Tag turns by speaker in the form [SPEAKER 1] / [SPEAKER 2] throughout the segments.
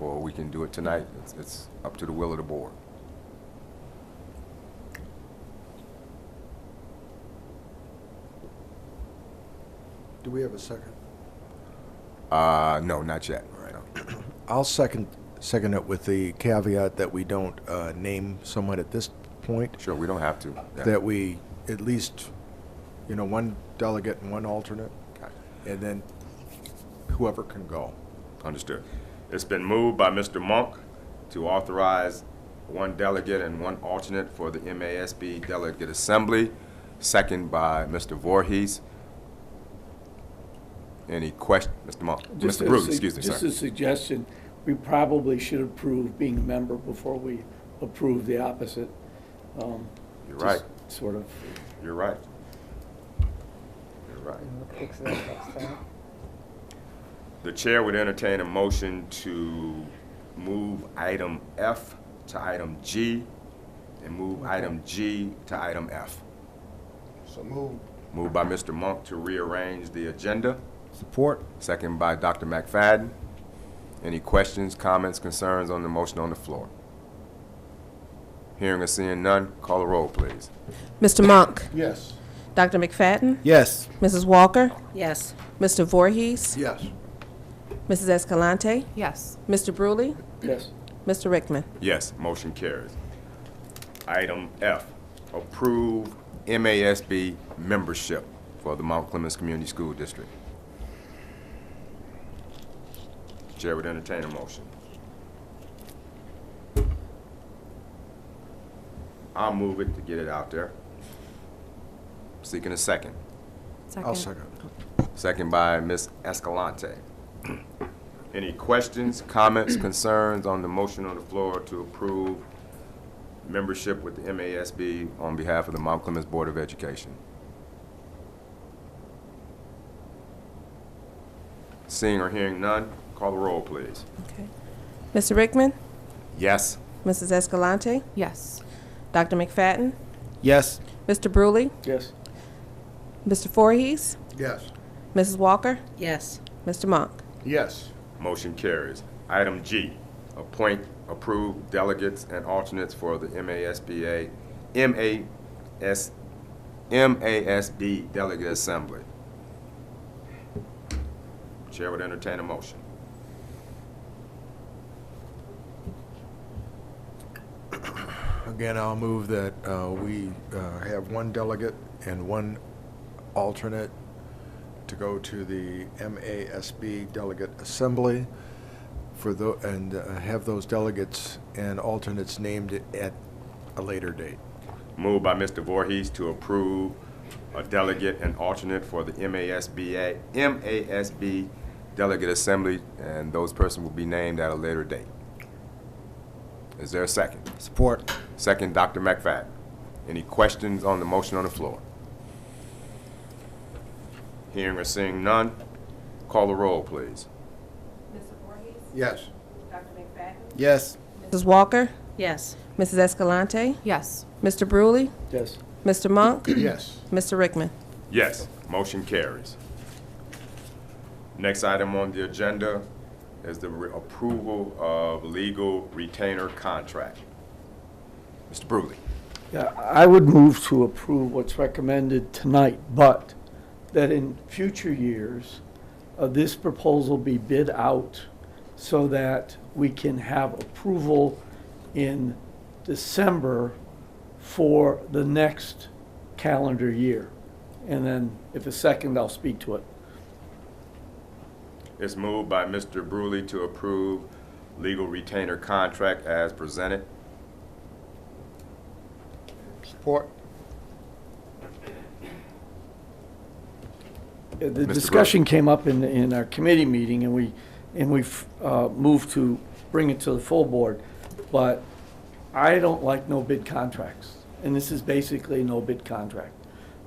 [SPEAKER 1] we can do it tonight. It's, it's up to the will of the board.
[SPEAKER 2] Do we have a second?
[SPEAKER 1] Uh, no, not yet. No.
[SPEAKER 2] I'll second, second it with the caveat that we don't uh, name someone at this point,
[SPEAKER 1] Sure, we don't have to. Yeah.
[SPEAKER 2] that we at least, you know, one delegate and one alternate,
[SPEAKER 1] Okay.
[SPEAKER 2] and then whoever can go.
[SPEAKER 1] Understood. It's been moved by Mr. Monk to authorize one delegate and one alternate for the MASB Delegate Assembly, second by Mr. Voorhees. Any question, Mr. Monk?
[SPEAKER 3] Just
[SPEAKER 1] Mr.
[SPEAKER 3] a
[SPEAKER 1] Bruce,
[SPEAKER 3] su-
[SPEAKER 1] excuse me,
[SPEAKER 3] Just a
[SPEAKER 1] sir.
[SPEAKER 3] suggestion, we probably should approve being a member before we approve the opposite. Um,
[SPEAKER 1] You're
[SPEAKER 3] just
[SPEAKER 1] right,
[SPEAKER 3] Sort of,
[SPEAKER 1] you're right. You're right.
[SPEAKER 4] We'll fix that next time.
[SPEAKER 1] The chair would entertain a motion to move item F to item G and move item G to item F.
[SPEAKER 2] So move.
[SPEAKER 1] Moved by Mr. Monk to rearrange the agenda,
[SPEAKER 2] Support?
[SPEAKER 1] second by Dr. McFadden. Any questions, comments, concerns on the motion on the floor? Hearing or seeing none, call the roll, please.
[SPEAKER 5] Mr. Monk,
[SPEAKER 2] Yes.
[SPEAKER 5] Dr. McFadden,
[SPEAKER 2] Yes.
[SPEAKER 5] Mrs. Walker,
[SPEAKER 4] Yes.
[SPEAKER 5] Mr. Voorhees,
[SPEAKER 2] Yes.
[SPEAKER 5] Mrs. Escalante,
[SPEAKER 4] Yes.
[SPEAKER 5] Mr. Brewley,
[SPEAKER 3] yes,
[SPEAKER 5] Mr. Rickman.
[SPEAKER 1] Yes, motion carries. Item F, approve MASB membership for the Mount Clemens Community School District. Chair would entertain a motion. I'll move it to get it out there. Seeking a second.
[SPEAKER 2] I'll second.
[SPEAKER 1] Second by Ms. Escalante. Any questions, comments, concerns on the motion on the floor to approve membership with the MASB on behalf of the Mount Clemens Board of Education? Seeing or hearing none, call the roll, please.
[SPEAKER 5] Okay. Mr. Rickman,
[SPEAKER 1] Yes.
[SPEAKER 5] Mrs. Escalante,
[SPEAKER 4] Yes.
[SPEAKER 5] Dr. McFadden,
[SPEAKER 2] Yes.
[SPEAKER 5] Mr. Brewley,
[SPEAKER 3] yes,
[SPEAKER 5] Mr. Voorhees,
[SPEAKER 2] Yes.
[SPEAKER 5] Mrs. Walker,
[SPEAKER 4] Yes.
[SPEAKER 5] Mr. Monk.
[SPEAKER 2] Yes.
[SPEAKER 1] Motion carries. Item G, appoint approved delegates and alternates for the MASBA, MAS, MASB Delegate Assembly. Chair would entertain a motion.
[SPEAKER 2] Again, I'll move that uh, we uh, have one delegate and one alternate to go to the MASB Delegate Assembly for the, and uh, have those delegates and alternates named at a later date.
[SPEAKER 1] Moved by Mr. Voorhees to approve a delegate and alternate for the MASBA, MASB Delegate Assembly, and those persons will be named at a later date. Is there a second?
[SPEAKER 2] Support.
[SPEAKER 1] Second, Dr. McFadden. Any questions on the motion on the floor? Hearing or seeing none, call the roll, please.
[SPEAKER 2] Yes. Yes.
[SPEAKER 5] Mrs. Walker,
[SPEAKER 4] Yes.
[SPEAKER 5] Mrs. Escalante,
[SPEAKER 4] Yes.
[SPEAKER 5] Mr. Brewley,
[SPEAKER 3] yes.
[SPEAKER 5] Mr. Monk,
[SPEAKER 2] Yes.
[SPEAKER 5] Mr. Rickman.
[SPEAKER 1] Yes, motion carries. Next item on the agenda is the re- approval of legal retainer contract. Mr. Brewley.
[SPEAKER 3] Yeah, I would move to approve what's recommended tonight, but that in future years, uh, this proposal be bid out so that we can have approval in December for the next calendar year. And then if a second, I'll speak to it. Uh,
[SPEAKER 1] It's moved by Mr. Brewley to approve legal retainer contract as presented.
[SPEAKER 2] Support.
[SPEAKER 3] Uh, The
[SPEAKER 1] Mr.
[SPEAKER 3] discussion came up in, in our committee meeting, and we, and we uh, moved to bring it to the full board, but I don't like no-bid contracts, and this is basically a no-bid contract.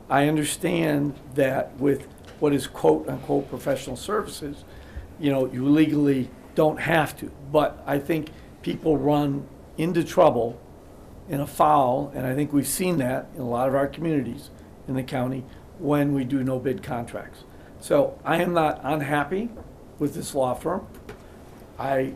[SPEAKER 3] I understand that with what is quote-unquote professional services, you know, you legally don't have to, but I think people run into trouble and a foul, and I think we've seen that in a lot of our communities in the county when we do no-bid contracts. So I am not unhappy with this law firm. I